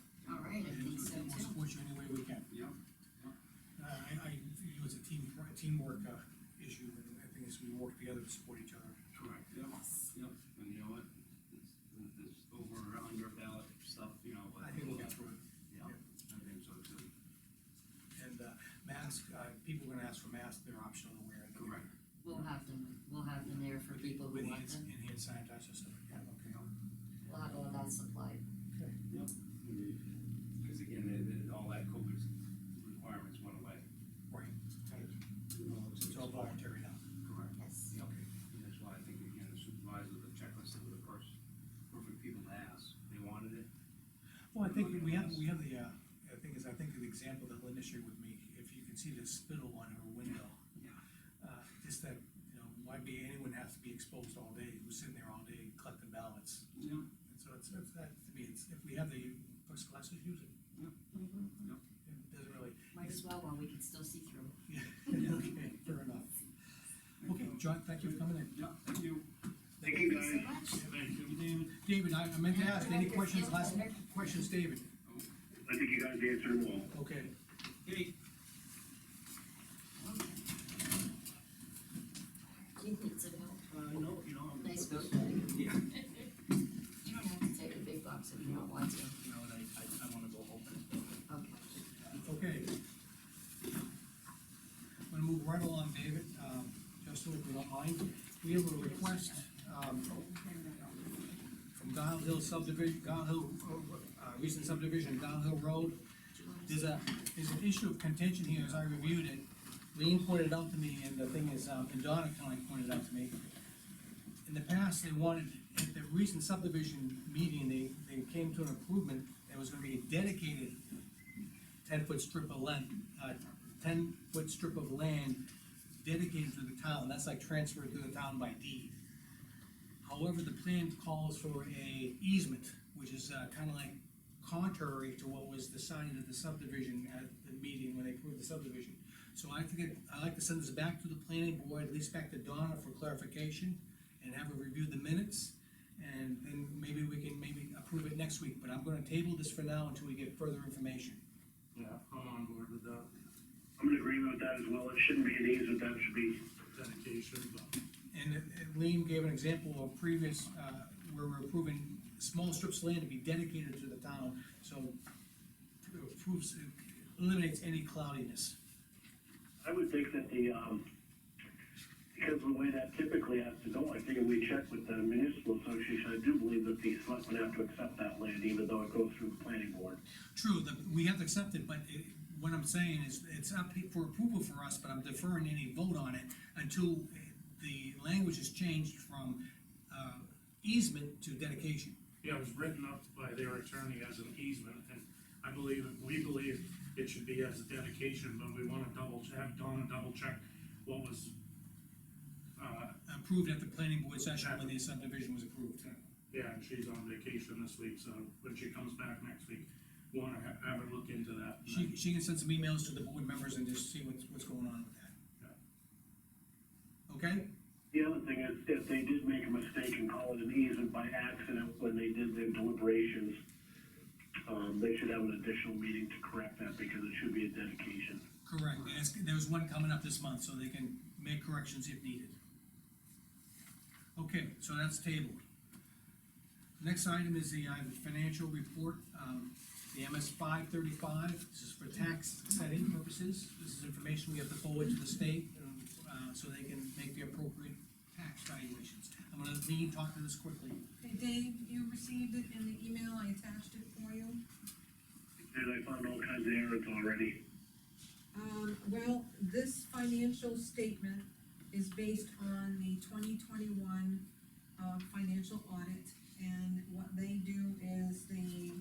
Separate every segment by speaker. Speaker 1: Uh, together to support each other.
Speaker 2: Correct, yep, yep, and you know what? This, this over or under ballot stuff, you know.
Speaker 1: I think we'll get through it.
Speaker 2: Yeah, I think so too.
Speaker 1: And, uh, masks, uh, people are gonna ask for masks, they're optional to wear.
Speaker 2: Correct.
Speaker 3: We'll have them, we'll have them there for
Speaker 1: With-
Speaker 3: people
Speaker 1: With
Speaker 3: who want
Speaker 1: hand,
Speaker 3: them,
Speaker 1: and hand sanitizer, so, yeah, okay.
Speaker 3: we'll have all that supplied.
Speaker 2: Cause again, it, it, all that COVID requirements went away.
Speaker 3: Mm-hmm.
Speaker 1: It's all voluntary now.
Speaker 2: Correct.
Speaker 3: Yes.
Speaker 1: Okay.
Speaker 2: And that's why I think again, the supervisor, the checklist, they were the first, perfect people to ask, they wanted it.
Speaker 1: Well, I think we have, we have the, uh, the thing is, I think the example that Linda shared with me, if you can see the spittle on her window.
Speaker 2: Yeah.
Speaker 1: Uh, just that, you know, why be, anyone has to be exposed all day, who's sitting there all day collecting ballots.
Speaker 2: Yeah.
Speaker 1: And so it's, it's, that, to me, it's, if we have the first classes, use it,
Speaker 3: Mhm.
Speaker 1: it doesn't really.
Speaker 3: Might as well while we can still see through.
Speaker 1: Okay, fair enough. Okay, John, thank you for coming in.
Speaker 2: Yeah, thank you.
Speaker 3: Thank you so much.
Speaker 4: Thank you.
Speaker 1: David, David, I I meant to ask, any questions, last questions, David?
Speaker 4: I think you guys answered them all.
Speaker 1: Okay.
Speaker 2: Hey,
Speaker 3: Do you need some help?
Speaker 2: uh, no, you know. I'm-
Speaker 3: Nice book bag.
Speaker 2: Yeah.
Speaker 3: You don't have to take a big box if you don't want to.
Speaker 2: You know, and I, I, I wanna go home.
Speaker 3: Okay.
Speaker 1: Okay. I'm gonna move right along, David, um, just over the line, we have a request, um, from Guile Hill subdivision, Guile Hill, uh, recent subdivision, Guile Hill
Speaker 3: Do
Speaker 1: Road,
Speaker 3: you want to-
Speaker 1: there's a, there's an issue of contention here, as I reviewed it, Lean pointed out to me, and the thing is, um, and Donna kinda like pointed out to me. In the past, they wanted, at the recent subdivision meeting, they, they came to an improvement, there was gonna be a dedicated ten-foot strip of land, uh, ten-foot strip of land dedicated to the town, that's like transferred to the town by deed. However, the plan calls for a easement, which is, uh, kinda like contrary to what was decided at the subdivision, at the meeting when they approved the subdivision. So I think, I- I'd like to send this back to the planning board, at least back to Donna for clarification, and have her review the minutes, and then maybe we can maybe approve it next week, but I'm gonna table this for now until we get further information.
Speaker 2: Yeah, I'm on board with that
Speaker 4: I'm in agreement with that as well. It shouldn't be an easement, that should be,
Speaker 2: dedication, but.
Speaker 1: And and Lean gave an example of previous, uh, where we're approving small strips of land to be dedicated to the town, so it proves, it eliminates any cloudiness.
Speaker 4: I would think that the, um, because of the way that typically has to go, I figure we check with the municipal association. I do believe that the selectmen have to accept that land, even though it goes through the planning board.
Speaker 1: True, the, we have to accept it, but it, what I'm saying is, it's up for approval for us, but I'm deferring any vote on it until the language is changed from, uh, easement to dedication.
Speaker 5: Yeah, it was written up by their attorney as an easement, and I believe, we believe it should be as a dedication, but we wanna double, have Donna double check what was, uh,
Speaker 1: Approved at the planning board session when the subdivision was approved.
Speaker 5: yeah, and she's on vacation this week, so when she comes back next week, wanna ha- have her look into that. and
Speaker 1: She, she can send some emails to the board members and just see what's, what's going on with that. Okay?
Speaker 4: The other thing is, if they did make a mistake and call it an easement by accident when they did their deliberations, um, they should have an additional meeting to correct that because it should be a dedication.
Speaker 1: Correct, and it's, there's one coming up this month, so they can make corrections if needed. Okay, so that's tabled. Next item is the, uh, financial report, um, the MS five thirty-five, this is for tax setting purposes. This is information we have to forward to the state, um, uh, so they can make the appropriate tax valuations. I'm gonna, Lean, talk to this quickly.
Speaker 6: Hey Dave, you received it in the email, I attached it for you.
Speaker 4: And I found all kinds of errors already.
Speaker 6: Um, well, this financial statement is based on the twenty twenty-one, uh, financial audit. And what they do is they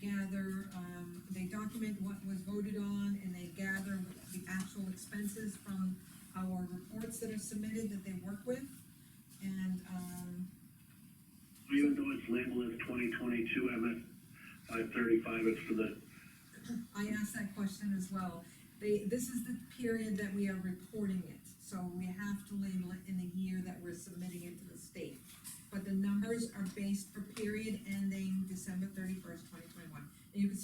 Speaker 6: gather, um, they document what was voted on and they gather the actual expenses from our reports that are submitted that they work with. And, um,
Speaker 4: Even though it's labeled as twenty twenty-two MS five thirty-five, it's for the,
Speaker 6: I asked that question as well. They, this is the period that we are reporting it, so we have to label it in the year that we're submitting it to the state. But the numbers are based for period ending December thirty-first, twenty twenty-one. You can